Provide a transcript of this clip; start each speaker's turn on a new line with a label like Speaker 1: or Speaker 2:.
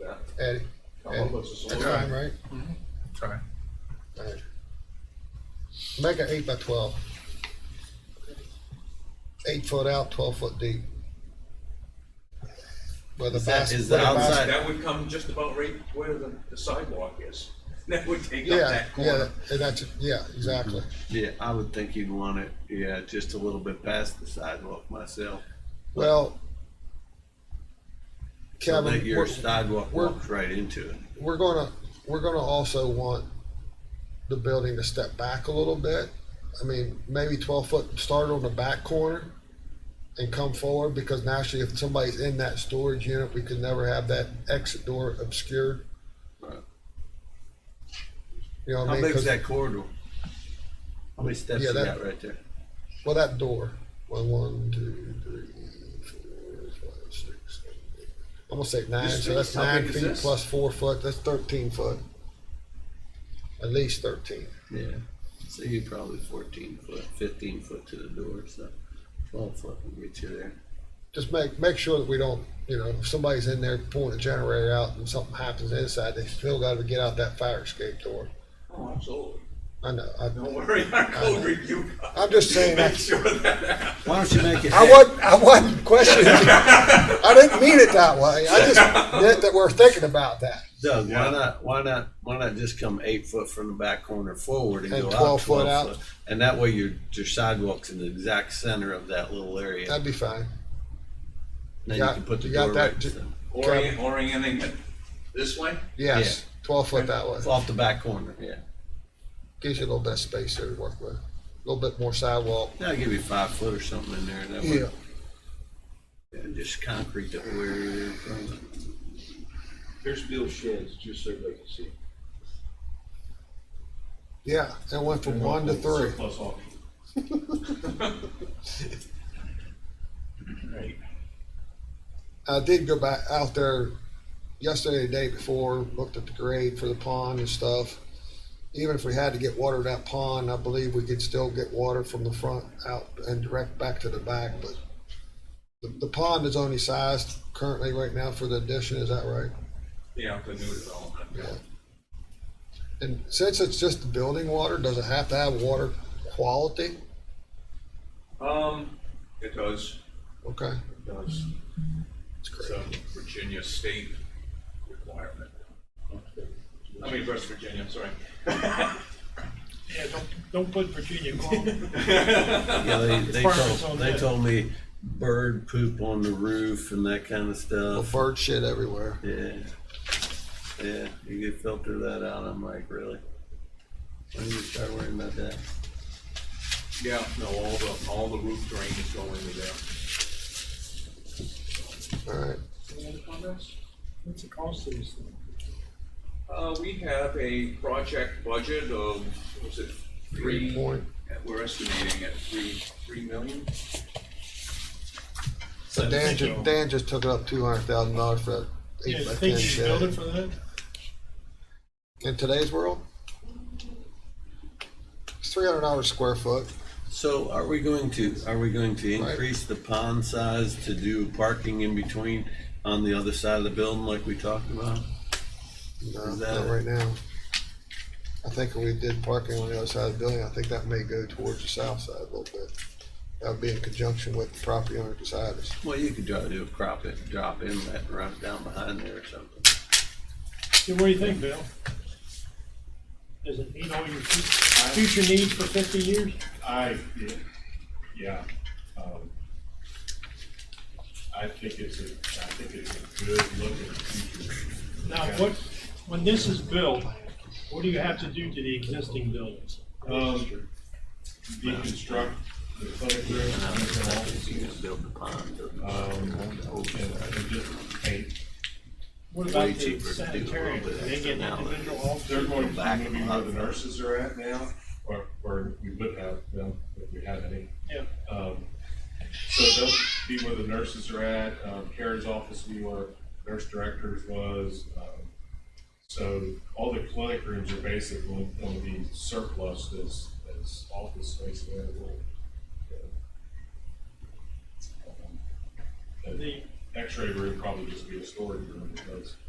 Speaker 1: that.
Speaker 2: Eddie,
Speaker 1: Columbus is a
Speaker 2: that's
Speaker 1: little-
Speaker 2: right, right?
Speaker 3: Sorry.
Speaker 2: Alright. Make it eight by twelve. Eight foot out, twelve foot deep. With a
Speaker 4: Is that-
Speaker 2: bas-
Speaker 4: is
Speaker 2: with
Speaker 4: the
Speaker 2: a bas-
Speaker 4: outside-
Speaker 1: That would come just about right where the, the sidewalk is. That would take up
Speaker 2: Yeah,
Speaker 1: that
Speaker 2: yeah,
Speaker 1: corner.
Speaker 2: and that's, yeah, exactly.
Speaker 4: Yeah, I would think you'd want it, yeah, just a little bit past the sidewalk myself.
Speaker 2: Well,
Speaker 4: So
Speaker 2: Kevin,
Speaker 4: that your
Speaker 2: we're,
Speaker 4: sidewalk
Speaker 2: we're-
Speaker 4: walks right into it.
Speaker 2: we're gonna, we're gonna also want the building to step back a little bit. I mean, maybe twelve foot, start on the back corner and come forward, because naturally, if somebody's in that storage unit, we could never have that exit door obscured.
Speaker 4: Right.
Speaker 2: You know what I
Speaker 4: How
Speaker 2: mean?
Speaker 4: big's
Speaker 2: 'Cause-
Speaker 4: that corridor? How many steps
Speaker 2: Yeah,
Speaker 4: you
Speaker 2: that-
Speaker 4: got right there?
Speaker 2: Well, that door. One, one, two, three, four, five, six, seven, eight. I'm gonna say nine.
Speaker 1: This
Speaker 2: So that's
Speaker 1: thing, how
Speaker 2: nine
Speaker 1: big is
Speaker 2: feet
Speaker 1: this?
Speaker 2: plus four foot. That's thirteen foot. At least thirteen.
Speaker 4: Yeah, so you probably fourteen foot, fifteen foot to the door, so twelve foot will get you there.
Speaker 2: Just make make sure that we don't. You know, if somebody's in there pulling a generator out and something happens inside, they still got to get out that fire escape door.
Speaker 1: Oh, absolutely.
Speaker 2: I know. I,
Speaker 1: Don't worry, our code review.
Speaker 2: Uh, I'm just saying
Speaker 1: Make
Speaker 2: that's-
Speaker 1: sure that.
Speaker 4: Why don't you make it?
Speaker 2: I wasn't. I wasn't questioning. it. I didn't mean it that way. I just meant that we're thinking about that.
Speaker 4: Doug,
Speaker 1: Yeah.
Speaker 4: why not, why not, why not just come eight foot from the back corner forward and
Speaker 2: And
Speaker 4: go
Speaker 2: 12
Speaker 4: out
Speaker 2: foot
Speaker 4: twelve
Speaker 2: out?
Speaker 4: foot? And that way your, your sidewalk's in the exact center of that little area.
Speaker 2: That'd be fine.
Speaker 4: Then you
Speaker 2: got-
Speaker 4: can put the
Speaker 2: you got
Speaker 4: door
Speaker 2: that
Speaker 4: right,
Speaker 2: ju-
Speaker 4: so-
Speaker 1: Orient, orienting it this way?
Speaker 2: Yes, twelve foot that way.
Speaker 4: off the back corner, yeah.
Speaker 2: gives you a little bit of space there to work with, a little bit more sidewalk.
Speaker 4: That'll give you five foot or something in there, that way, and just concrete that where you're in front of.
Speaker 1: Here's Bill's sheds, just so they can see.
Speaker 2: Yeah, it went from one to three.
Speaker 1: Surplus auction. Right.
Speaker 2: I did go back out there yesterday, the day before, looked at the grade for the pond and stuff. Even if we had to get water to that pond, I believe we could still get water from the front out and direct back to the back, but the, the pond is only sized currently right now for the addition, is that right?
Speaker 1: Yeah, the new development.
Speaker 2: Yeah. And since it's just the building water, does it have to have water quality?
Speaker 1: Um, it does,
Speaker 2: Okay,
Speaker 1: it does. It's a Virginia state requirement. I mean, West Virginia, I'm sorry.
Speaker 5: Yeah, don't, don't put Virginia Gulf.
Speaker 4: Yeah, they, they
Speaker 5: far as it's on
Speaker 4: told, they
Speaker 5: that.
Speaker 4: told me bird poop on the roof and that kind of
Speaker 2: well,
Speaker 4: stuff.
Speaker 2: bird shit everywhere.
Speaker 4: Yeah. Yeah, you could filter that out. I'm like, really? Why do you start worrying about that?
Speaker 1: Yeah, no, all the, all the roof drain is going into there.
Speaker 2: All right.
Speaker 1: Any other comments?
Speaker 5: What's the cost of this thing?
Speaker 1: Uh, we have a project budget of, what was it, three?
Speaker 2: Three point.
Speaker 1: We're estimating at three, three million?
Speaker 4: So
Speaker 2: Dan,
Speaker 5: Thank
Speaker 2: ju-
Speaker 5: you.
Speaker 2: Dan just took it up two hundred thousand dollars for that
Speaker 5: Yeah,
Speaker 2: eight
Speaker 5: you
Speaker 2: by
Speaker 5: think
Speaker 2: ten
Speaker 5: you should build
Speaker 2: shed.
Speaker 5: it for that?
Speaker 2: In today's world, it's three hundred dollars square foot.
Speaker 4: So are we going to, are we going to
Speaker 2: Right.
Speaker 4: increase the pond size to do parking in between on the other side of the building like we talked about?
Speaker 2: No,
Speaker 4: Is that
Speaker 2: not
Speaker 4: it?
Speaker 2: right now. I think if we did parking on the other side of the building, I think that may go towards the south side a little bit. That would be in conjunction with the property owner beside us.
Speaker 4: Well, you could try to do a crop it, drop inlet, and run it down behind there or something.
Speaker 5: Yeah, what do you think, Bill? Does it meet all your fu- future needs for fifty years?
Speaker 6: I, yeah, um, I think it's a, I think it's a good look at the future.
Speaker 5: Now, what, when this is built, what do you have to do to the existing buildings?
Speaker 6: Um, deconstruct the clinic room,
Speaker 4: And I don't
Speaker 6: and all,
Speaker 4: think you can build the pond.
Speaker 6: um, and, and just paint.
Speaker 5: What
Speaker 4: Way
Speaker 5: about the
Speaker 4: cheaper to do a little
Speaker 5: sanitarium?
Speaker 4: bit
Speaker 5: They get
Speaker 4: now than-
Speaker 5: individual offices?
Speaker 6: They're going, to
Speaker 4: Back
Speaker 6: gonna be where
Speaker 4: up.
Speaker 6: the nurses are at now, or, or we would have them if we had any.
Speaker 5: Yeah.
Speaker 6: Um, So they'll be where the nurses are at, um, Karen's office, will be where nurse directors was. um, So all the clinic rooms are basically going to be surplus as, as office space available. Um, and
Speaker 5: The-
Speaker 6: X-ray room probably just be a storage room because